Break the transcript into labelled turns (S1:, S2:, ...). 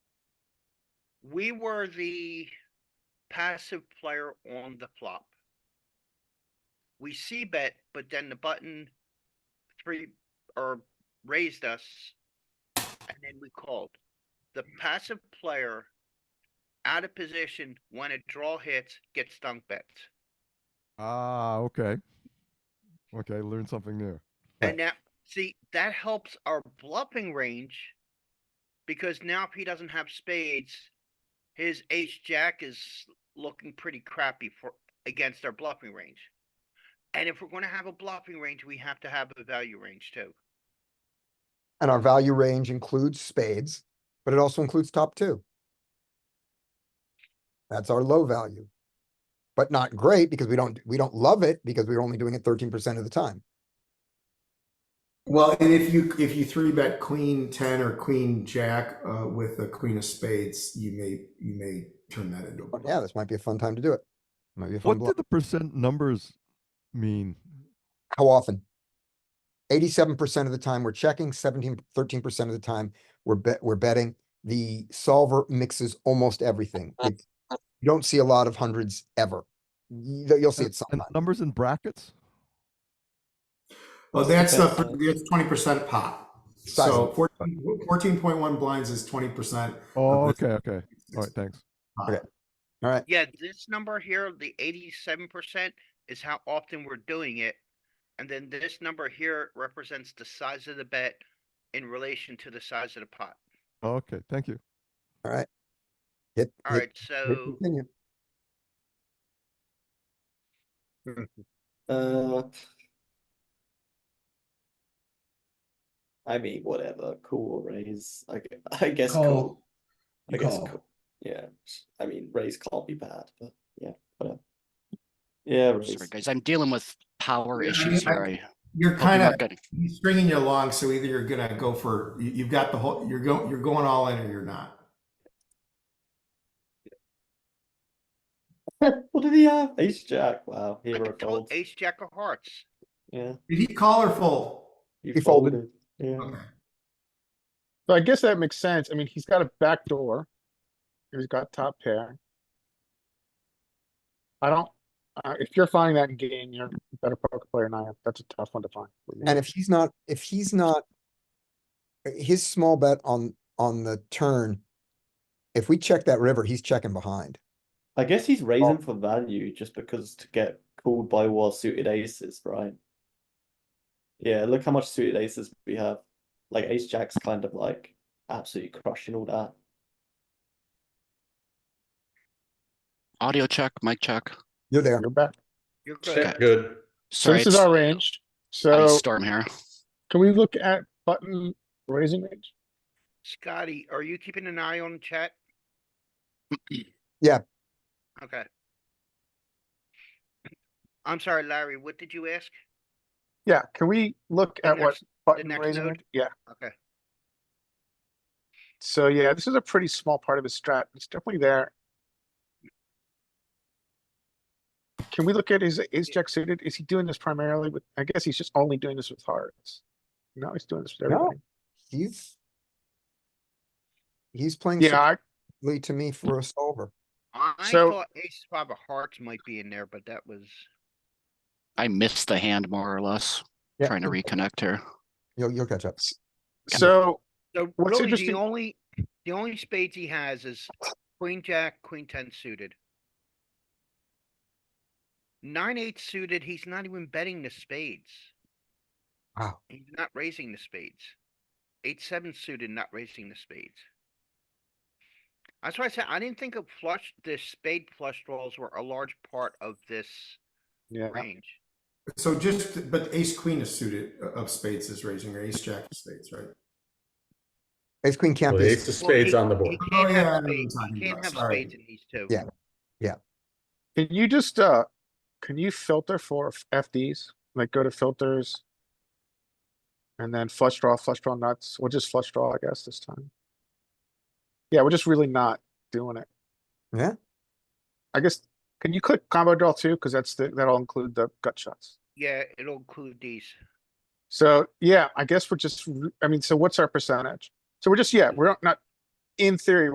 S1: we were the passive player on the flop. We see bet, but then the button three or raised us. And then we called. The passive player out of position when a draw hits gets dunk bets.
S2: Ah, okay. Okay, learn something new.
S1: And now, see, that helps our bluffing range. Because now if he doesn't have spades, his ace jack is looking pretty crappy for, against our bluffing range. And if we're gonna have a bluffing range, we have to have a value range too.
S3: And our value range includes spades, but it also includes top two. That's our low value. But not great because we don't, we don't love it because we're only doing it thirteen percent of the time.
S4: Well, and if you if you three bet queen ten or queen jack uh, with a queen of spades, you may you may turn that into a
S3: But yeah, this might be a fun time to do it. Might be a fun
S2: What
S3: block.
S2: did the percent numbers mean?
S3: How often? Eighty-seven percent of the time we're checking, 17, 13 percent of the time we're bet, we're betting. The solver mixes almost everything. It's- You don't see a lot of hundreds ever. You- You'll see
S2: And-
S3: it
S2: and
S3: sometime.
S2: numbers in brackets?
S4: Well, that's the that's twenty percent pop. So
S3: Size.
S4: 14.1 blinds is twenty percent.
S2: Oh,
S4: this-
S2: okay, okay. All right, thanks.
S3: All right.
S1: Yeah, this number here, the eighty-seven percent is how often we're doing it. And then this number here represents the size of the bet in relation to the size of the pot.
S2: Okay, thank you.
S3: Hit, hit,
S1: Alright,
S3: hit
S1: so
S3: continue.
S5: Uh. I mean, whatever. Cool raise. I, gu- I guess
S6: Call.
S5: cool. I
S6: You
S5: guess
S6: call.
S5: cool. Yeah. I mean, raise can't be bad, but yeah, whatever. Yeah,
S7: Sorry,
S5: raise.
S7: guys, I'm dealing with power
S4: Yeah, I
S7: issues
S4: mean, I-
S7: here. I
S4: You're
S7: hope you're
S4: kind of
S7: not getting.
S4: he's stringing you along, so either you're gonna go for you, you've got the whole you're going you're going all in or you're not.
S5: What did he have? Ace jack. Wow.
S1: I
S5: Hero
S1: told
S5: folds.
S1: ace jack of hearts.
S5: Yeah.
S4: Did he call or fold?
S5: He
S3: He folded.
S5: folded. Yeah.
S4: Okay.
S8: So I guess that makes sense. I mean, he's got a back door. He's got top pair. I don't, uh, if you're finding that in game, you're a better poker player than I am. That's a tough one to find.
S3: And if he's not, if he's not, his small bet on, on the turn, if we check that river, he's checking behind.
S5: I guess he's raising for value just because to get called by war suited aces, right? Yeah, look how much suited aces we have. Like ace jack's kind of like absolutely crushing all that.
S7: Audio check, mic check.
S3: You're there.
S8: You're back.
S1: You're
S7: Check.
S1: good.
S9: Good.
S8: So
S7: Sorry,
S8: this is
S7: it's
S8: our range.
S7: ice
S8: So
S7: storm here.
S8: can we look at button raising range?
S1: Scotty, are you keeping an eye on chat?
S3: Yeah.
S1: Okay. I'm sorry, Larry, what did you ask?
S8: Yeah, can we look
S1: The
S8: at what
S1: next-
S8: button
S1: next
S8: raising?
S1: node?
S8: range? Yeah.
S1: Okay.
S8: So yeah, this is a pretty small part of his strat. It's definitely there. Can we look at his ace jack suited? Is he doing this primarily with, I guess he's just only doing this with hearts. No, he's doing this with
S3: No.
S8: everybody.
S3: He's. He's playing
S8: Yeah, I,
S3: secretly to me for a solver.
S1: I
S8: So-
S1: thought ace five of hearts might be in there, but that was,
S7: I missed the hand more or less,
S3: Yeah,
S7: trying to
S3: you'll-
S7: reconnect here.
S3: You'll, you'll catch up.
S8: so
S1: so really
S8: What's
S1: the
S8: interesting-
S1: only, the only spades he has is queen jack, queen ten suited. Nine eight suited, he's not even betting the spades.
S3: Wow.
S1: He's not raising the spades. Eight, seven suited, not raising the spades. That's why I said, I didn't think of flush, the spade flush draws were a large part of this
S8: Yeah.
S1: range.
S4: So just but ace queen is suited uh, of spades is raising or ace jack of spades, right?
S3: Ace queen can't
S9: Well,
S3: be,
S9: the ace of spades on the board.
S1: He can't
S4: Oh, yeah, I know
S1: have
S4: what you're
S1: spades,
S4: talking
S1: he can't
S4: about,
S1: have
S4: sorry.
S1: spades in these two.
S3: Yeah.
S8: Can you just, uh, can you filter for f- FDs? Like go to filters. And then flush draw, flush draw nuts. We'll just flush draw, I guess, this time. Yeah, we're just really not doing it.
S3: Yeah.
S8: I guess, can you click combo draw too? Cause that's the, that'll include the gut shots.
S1: Yeah, it'll include these.
S8: So, yeah, I guess we're just, r- I mean, so what's our percentage? So we're just, yeah, we're not, in theory,